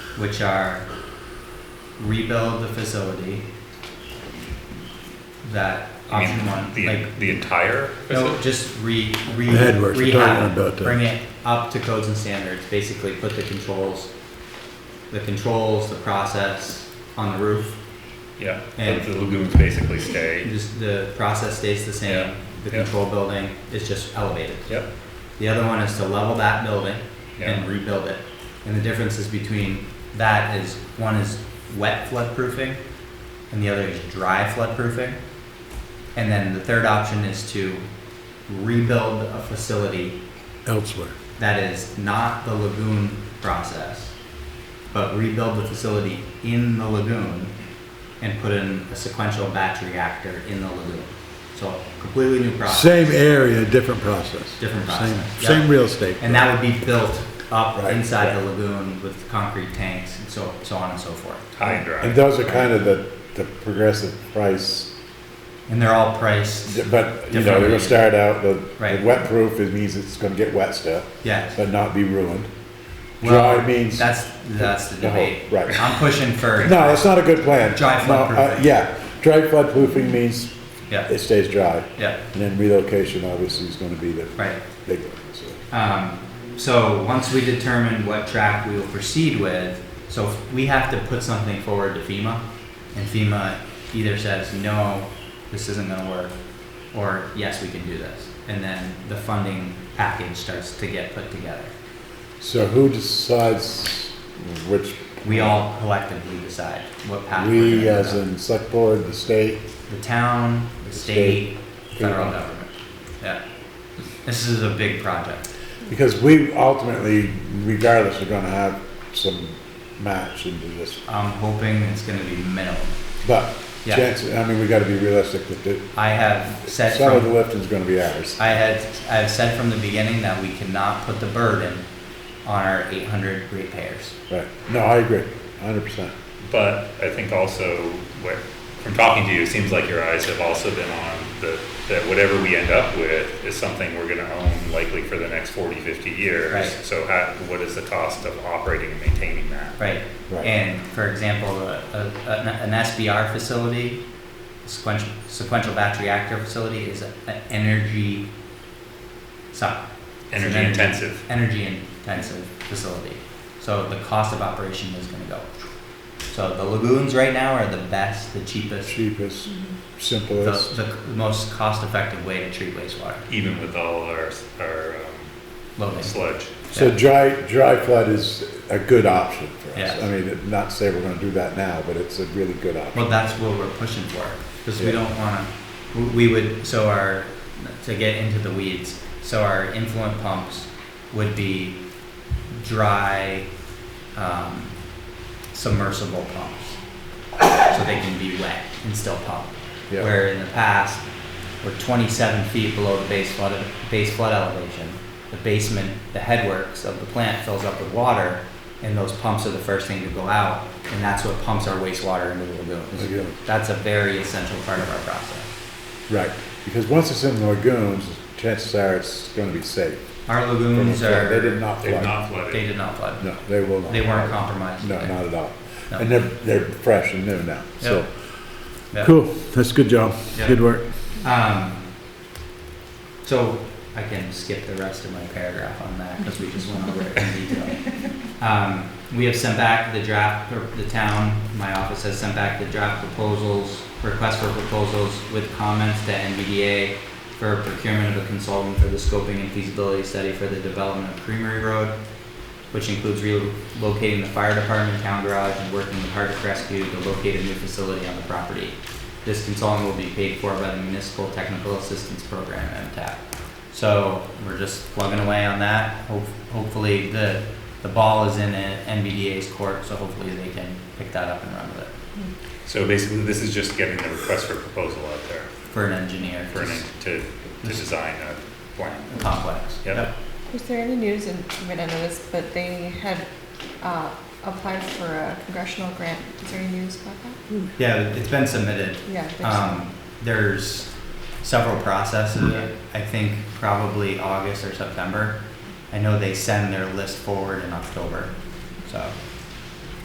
which are rebuild the facility. That You mean option one, The, like, the entire? no, just re, re, The headworks, we're talking rehab, about the- bring it up to codes and standards, basically put the controls, the controls, the process on the roof. Yeah, And- but the lagoons basically stay. Just the process stays the Yeah, same, the yeah. control building is just elevated. Yep, The other one is to level that building and Yeah. rebuild it. And the differences between that is, one is wet flood proofing and the other is dry flood proofing. And then the third option is to rebuild a facility elsewhere. that is not the lagoon process, but rebuild the facility in the lagoon and put in a sequential batch reactor in the lagoon. So completely new process. Same area, different process. Different Same- process, yeah. Same real estate. And that would be built up Right. inside the lagoon with concrete tanks and so, so on and so forth. high and And dry. those are kind of the, the progressive price, And they're all priced, but, you know, they're gonna start out, the, Right. the wet proof, it means it's gonna get wet still, yes. but not be ruined. Well, Dry means, no, That's, that's the The whole- debate. right. I'm pushing for, that's not a good plan. Dry flood No, uh, proofing. Yeah, dry flood proofing means yeah, it stays dry, yeah, and then relocation obviously is gonna be the right. big one, so. Um, so once we determine what track we will proceed with, so we have to put something forward to FEMA, and FEMA either says, no, this isn't gonna work, or yes, we can do this. And then the funding package starts to get put together. So who decides which? We all collectively decide what path we're We, gonna as go down. in select board, the state, The town, the the state, federal FEMA. government, yeah. This is a big project, Because we ultimately, regardless, we're gonna have some match into this, I'm hoping it's gonna be minimal. but Yeah. chances, I mean, we gotta be realistic with it. I have said Some of from the lifting's gonna be ours. I had, I have said from the beginning that we cannot put the burden on our eight hundred ratepayers. Right, no, I agree, hundred percent. But I think also, what, from talking to you, it seems like your eyes have also been on the, that whatever we end up with is something we're gonna own likely for the next 40, 50 years. Right. So how, what is the cost of operating and maintaining that? Right. Right. And for example, a, a, an an SBR facility, sequential, sequential batch reactor facility is a- an energy suck. It's an Energy intensive. Energy intensive facility. So the cost of operation is gonna go. So the lagoons right now are the best, the cheapest, Cheapest, the, simplest, the most cost-effective way to treat wastewater, Even with all our, s- our um, loading. sludge. so dry, dry flood is a good option for us. Yes. I mean, it- not to say we're gonna do that now, but it's a really good option. Well, that's what we're pushing for, because we Yeah. don't wanna, we we would, so our, to get into the weeds, so our influent pumps would be dry, um, submersible pumps. So they can be wet and still pump. Yeah. Where in the past, we're twenty-seven feet below the base flood, base flood elevation. The basement, the headworks of the plant fills up with water, and those pumps are the first thing to go out, and that's what pumps our wastewater into the Okay. lagoons. That's a very essential part of our process. Right, because once it's in the lagoons, chances are it's gonna be safe. Our lagoons are, They did not They've flood. not flooded. they did not flood. No, they will not. They weren't compromised. No, not at all. No. And they're, they're fresh and new now, so. Yeah. Cool, that's good job, Yeah. good work. Um, so I can skip the rest of my paragraph on that because we just went over it in detail. Um, we have sent back the draft, or the town, my office has sent back the draft proposals, request for proposals with comments to NVDA for procurement of a consultant for the scoping and feasibility study for the development of Creamery Road, which includes relocating the fire department, town garage, and working with Hardwick Rescue to locate a new facility on the property. This consultant will be paid for by the Municipal Technical Assistance Program, MTAP. So we're just plugging away on that. Ho- Hopefully, the, the ball is in uh, NVDA's court, so hopefully they can pick that up and run with it So basically, this is just getting the request for proposal out there for an engineer, for for an, a to, to design a plan. complex. Yep. Was there any news, and you might not know this, but they had uh, applied for a congressional grant. Is there any news about that? Yeah, it's been submitted. Yeah. there's- Um, there's several processes, I think probably August or September. I know they send their list forward in October, so